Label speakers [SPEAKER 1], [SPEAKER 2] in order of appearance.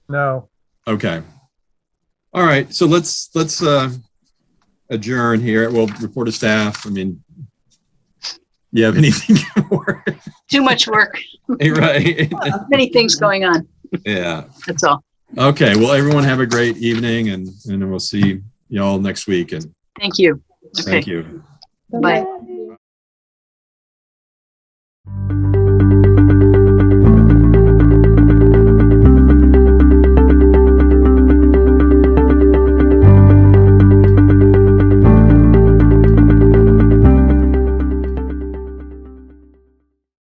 [SPEAKER 1] No,
[SPEAKER 2] Okay. All right, so let's, let's uh adjourn here. We'll report to staff. I mean, you have anything? more?
[SPEAKER 3] Too much work,
[SPEAKER 2] Right,
[SPEAKER 3] many things going on,
[SPEAKER 2] yeah.
[SPEAKER 3] that's all.
[SPEAKER 2] Okay, well, everyone have a great evening and, and we'll see y'all next week and
[SPEAKER 3] Thank you. Okay.
[SPEAKER 2] thank you.
[SPEAKER 3] Bye.
[SPEAKER 4] Bye.